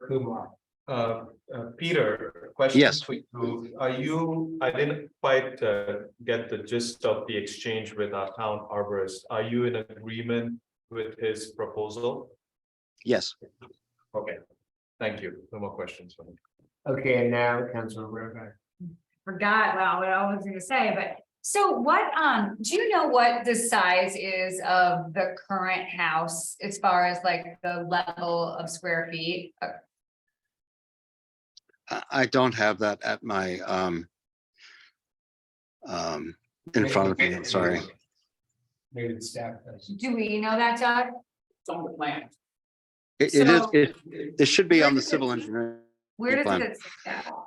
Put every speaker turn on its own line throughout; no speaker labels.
Kumar. Uh, uh, Peter, question.
Yes.
For you, are you, I didn't quite uh, get the gist of the exchange with our town arborist. Are you in agreement with his proposal?
Yes,
Okay, thank you. No more questions for me.
Okay, and now Council Rovak.
forgot, wow, what I was gonna say, but, so what, um, do you know what the size is of the current house? As far as like the level of square feet, Uh,
I, I don't have that at my, um, um, in front of me, I'm sorry.
Maybe the staff does.
do we know that, Doug?
It's on the plan.
It, it is,
So-
it, it should be on the civil engineer.
Where does
Fine.
it? sit now?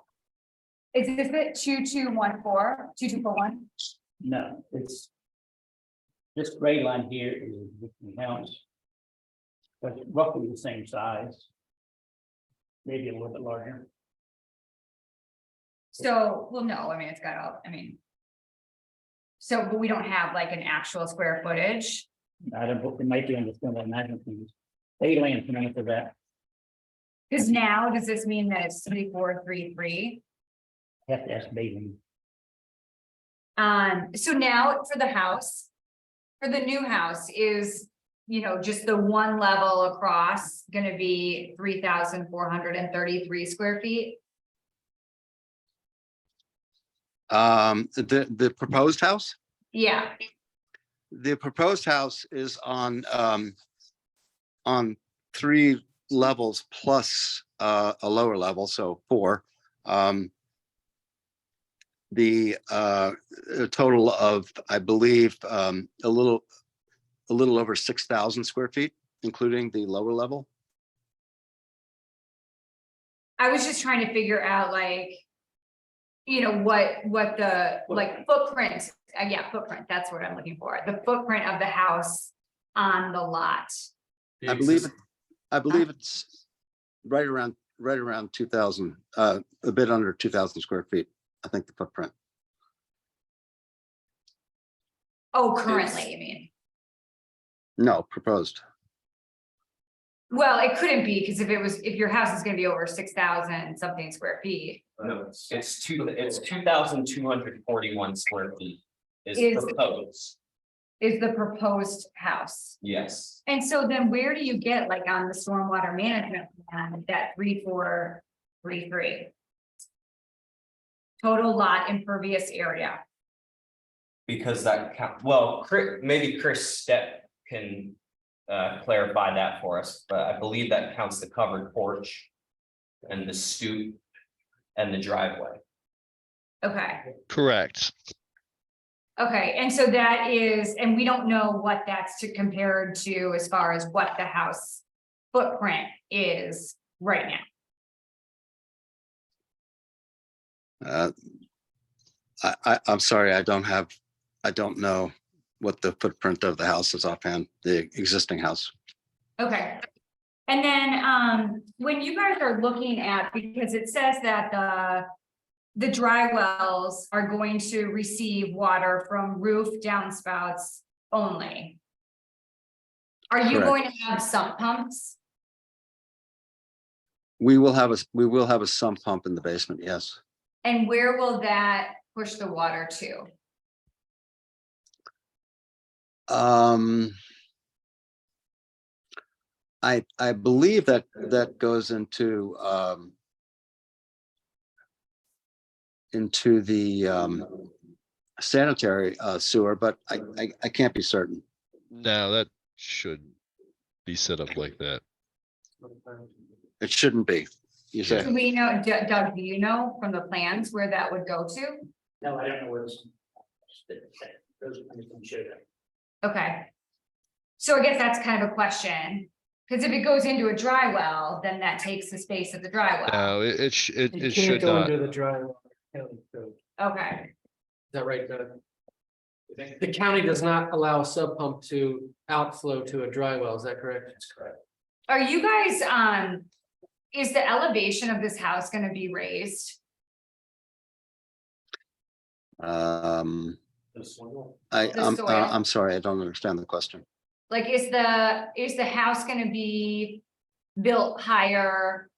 Is this it, two, two, one, four, two, two, four, one?
No, it's. This gray line here is the house. But it's roughly the same size. Maybe a little bit larger.
So, well, no, I mean, it's got all, I mean. So, but we don't have like an actual square footage,
I don't, know, it might be on the film, I imagine things. They land tonight for that,
because now, does this mean that it's three, four, three, three?
have to ask Bailey.
Um, so now for the house. For the new house is, you know, just the one level across gonna be three thousand four hundred and thirty-three square feet.
Um, the, the proposed house?
Yeah,
The proposed house is on, um, on three levels plus, uh, a lower level, so four. Um, the, uh, a total of, I believe, um, a little, a little over six thousand square feet, including the lower level.
I was just trying to figure out like. You know, what, what the, like footprint, uh, yeah, footprint, that's what I'm looking for, the footprint of the house on the lot.
I believe, I believe it's right around, right around two thousand, uh, a bit under two thousand square feet, I think the footprint.
Oh, currently, you mean?
No, proposed.
Well, it couldn't be, because if it was, if your house is gonna be over six thousand something square feet.
No, it's two, it's two thousand two hundred forty-one square feet is
Is-
proposed,
is the proposed house.
yes.
And so then where do you get like on the stormwater management plan, that three, four, three, three? Total lot impervious area.
Because that count, well, Chris, maybe Chris Step can uh clarify that for us, but I believe that counts the covered porch. And the stoop and the driveway.
Okay,
Correct.
okay. And so that is, and we don't know what that's to compare to as far as what the house footprint is right now.
Uh, I, I, I'm sorry, I don't have, I don't know what the footprint of the house is offhand, the existing house.
Okay. And then, um, when you guys are looking at, because it says that the. The dry wells are going to receive water from roof downspouts only. Are you
Correct.
going to have sump pumps?
We will have a, s- we will have a sump pump in the basement, yes.
And where will that push the water to?
Um, I, I believe that, that goes into, um, into the, um, sanitary uh, sewer, but I, I, I can't be certain.
No, that should be set up like that.
It shouldn't be. You say?
Do we know, Doug- Doug, do you know from the plans where that would go to?
No, I don't know where this. Those are things that show that.
Okay. So I guess that's kind of a question, because if it goes into a dry well, then that takes the space of the dry well.
No, it, it, sh- it,
You
it
can't
should
go
not.
under the drywall. County code. Is
Okay,
that right, Doug? The county does not allow a sub pump to outflow to a dry well, is that correct? That's correct.
are you guys, um, is the elevation of this house gonna be raised?
Um, I,
The
I'm,
soil.
uh, I'm sorry, I don't understand the question.
Like, is the, is the house gonna be built higher